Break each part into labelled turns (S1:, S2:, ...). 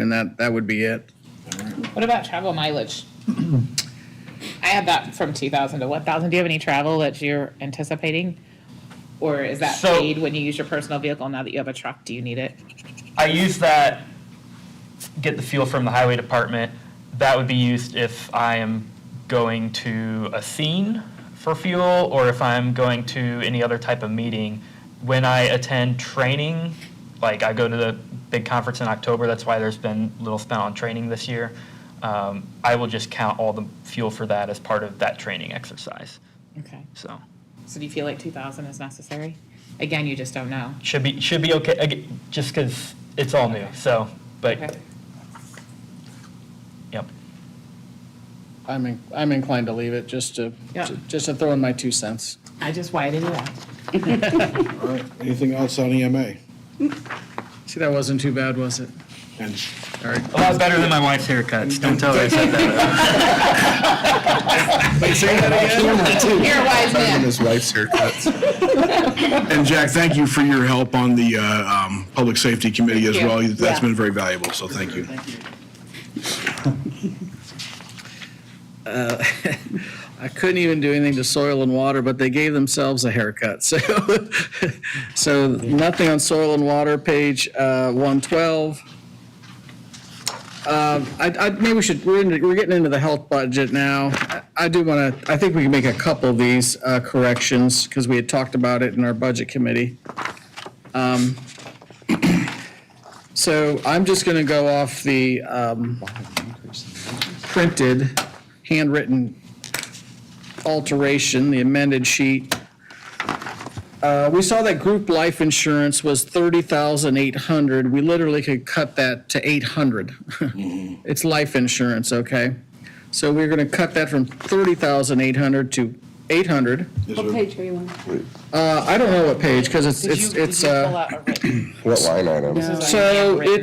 S1: And that, that would be it.
S2: What about travel mileage? I had that from two thousand to one thousand. Do you have any travel that you're anticipating? Or is that
S3: So-
S2: paid when you use your personal vehicle? Now that you have a truck, do you need it?
S3: I use that, get the fuel from the highway department. That would be used if I am going to a scene for fuel or if I'm going to any other type of meeting. When I attend training, like I go to the big conference in October, that's why there's been little spent on training this year. Um, I will just count all the fuel for that as part of that training exercise.
S2: Okay.
S3: So
S2: So do you feel like two thousand is necessary? Again, you just don't know.
S3: should be should be okay. Again, just because it's all new. So, but
S2: Okay.
S3: yep.
S4: I'm, in- I'm inclined to leave it, just to,
S2: Yeah.
S4: just to throw in my two cents.
S2: I just widened it out.
S5: All right, anything else on E EMA?
S4: See, that wasn't too bad, was it?
S5: And
S3: A lot better than my wife's haircuts. Don't tell her I said that.
S2: You're a wise
S5: and
S2: man.
S5: his wife's haircuts. And Jack, thank you for your help on the uh, um, Public Safety Committee as
S2: Thank you.
S5: well. That's
S2: Yeah.
S5: been very valuable, so thank you.
S4: I couldn't even do anything to soil and water, but they gave themselves a haircut, so. So nothing on soil and water, page uh, 112. Um, I, I, maybe we should, we're, into- we're getting into the health budget now. I I do want to, I think we can make a couple of these uh, corrections, because we had talked about it in our budget committee. Um, So I'm just going to go off the um, printed, handwritten alteration, the amended sheet. Uh, We saw that group life insurance was 30,800. We literally could cut that to 800. It's life insurance, okay? So we're going to cut that from 30,800 to 800.
S6: What page are you on?
S4: Uh, I don't know what page, because it's,
S2: Did you,
S4: it's,
S2: did
S4: it's,
S2: you pull
S4: uh,
S2: out a written?
S7: What line item?
S2: this is like
S4: so
S2: handwritten.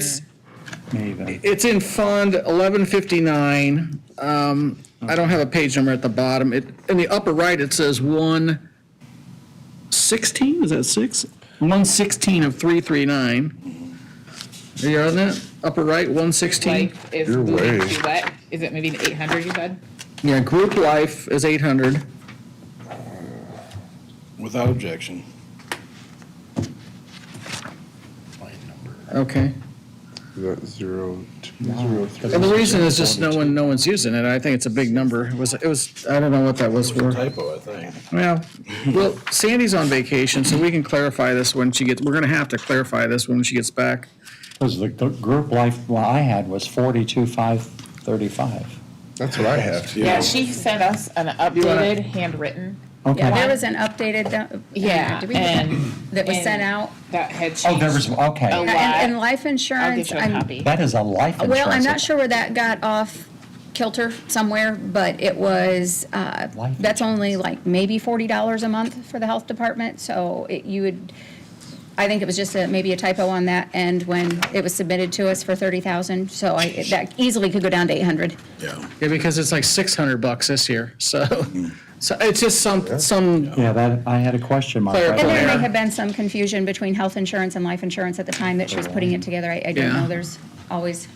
S4: it's, it's in Fund 1159. Um, I don't have a page number at the bottom. It, in the upper right, it says 116, is that six? 116 of 339. Are you on that? Upper right, 116?
S2: Like, is
S7: You're
S2: moving
S7: way-
S2: to what? Is it moving to eight hundred, you said?
S4: Yeah, group life is 800.
S5: Without objection.
S4: Okay.
S7: Is that zero, two, zero, three?
S4: And the reason is just no one, no one's using it. I think it's a big number. It was, it was, I don't know what that was for.
S5: Typo, I think.
S4: Well, well, Sandy's on vacation, so we can clarify this when she gets, we're gonna have to clarify this when she gets back.
S8: Because the the group life one I had was forty-two, five thirty-five.
S7: That's what I have.
S2: Yeah, she sent us an updated handwritten.
S6: Yeah,
S8: Okay.
S6: there was an updated, that-
S2: Yeah,
S6: Did we-
S2: and
S6: that was sent
S2: and-
S6: out.
S2: that had changed.
S8: Oh, there was,
S2: A
S8: okay.
S6: And,
S2: lot.
S6: and life
S2: I'll get
S6: insurance,
S2: you a
S6: I'm-
S2: copy.
S8: That is a life insurance.
S6: well, I'm not sure where that got off kilter somewhere, but it was, uh,
S8: Life
S6: that's only like maybe forty dollars a month for the health department, so it, you would, I think it was just a, maybe a typo on that end when it was submitted to us for thirty thousand, so I, that easily could go down to eight hundred.
S5: Yeah.
S4: Yeah, because it's like six hundred bucks this year, so, so it's just some, some,
S8: Yeah, that, I had a question mark.
S4: Claire,
S8: right
S6: And
S8: there.
S6: there
S4: Yeah.
S6: may have been some confusion between health insurance and life insurance at the time that she was putting it together. I, I don't
S4: Yeah.
S6: know. There's always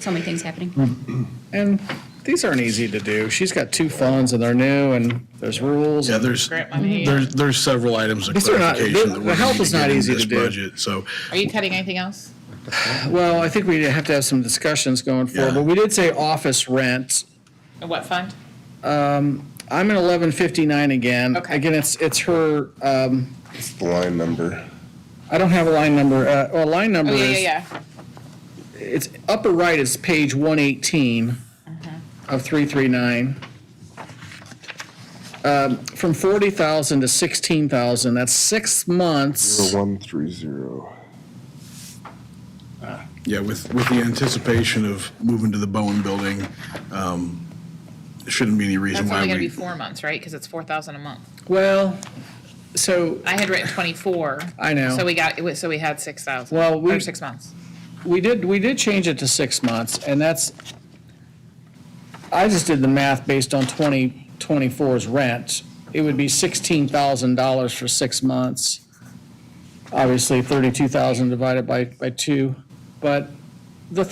S6: so many things happening.
S4: and these aren't easy to do. She's got two phones and they're new and there's rules.
S5: Yeah, there's,
S2: Grant money.
S5: there's, there's several items of
S4: These are not-
S5: clarification.
S4: the-
S5: that
S4: the
S5: we're gonna
S4: help
S5: need
S4: is not
S5: get in
S4: easy to
S5: this
S4: do.
S5: Budget, so.
S2: Are you cutting anything else?
S4: Well, I think we have to have some discussions going forward,
S5: Yeah.
S4: but we did say office rent.
S2: And what fund?
S4: I'm at eleven fifty-nine again.
S2: Okay.
S4: Again, it's, it's her, um,
S7: It's the line number.
S4: I don't have a line number, uh, well, line number
S2: Oh,
S4: is.
S2: yeah, yeah, yeah.
S4: it's upper right is page one eighteen
S2: Mm-hmm.
S4: of three three nine. Um, From forty thousand to sixteen thousand, that's six months.
S7: Zero, one, three, zero.
S5: Yeah, with, with the anticipation of moving to the Bowen Building, um, there shouldn't be any reason
S2: That's
S5: why
S2: only gonna be
S5: we.
S2: four months, right? Because it's four thousand a month.
S4: Well, so
S2: I had written twenty-four.
S4: I know.
S2: So we got, it was- so we had six thousand.
S4: Well, we-
S2: Or six months.
S4: we did, we did change it to six months, and that's, I just did the math based on twenty twenty-four's rent. It would be sixteen thousand dollars for six months. Obviously, thirty-two thousand divided by, by two, but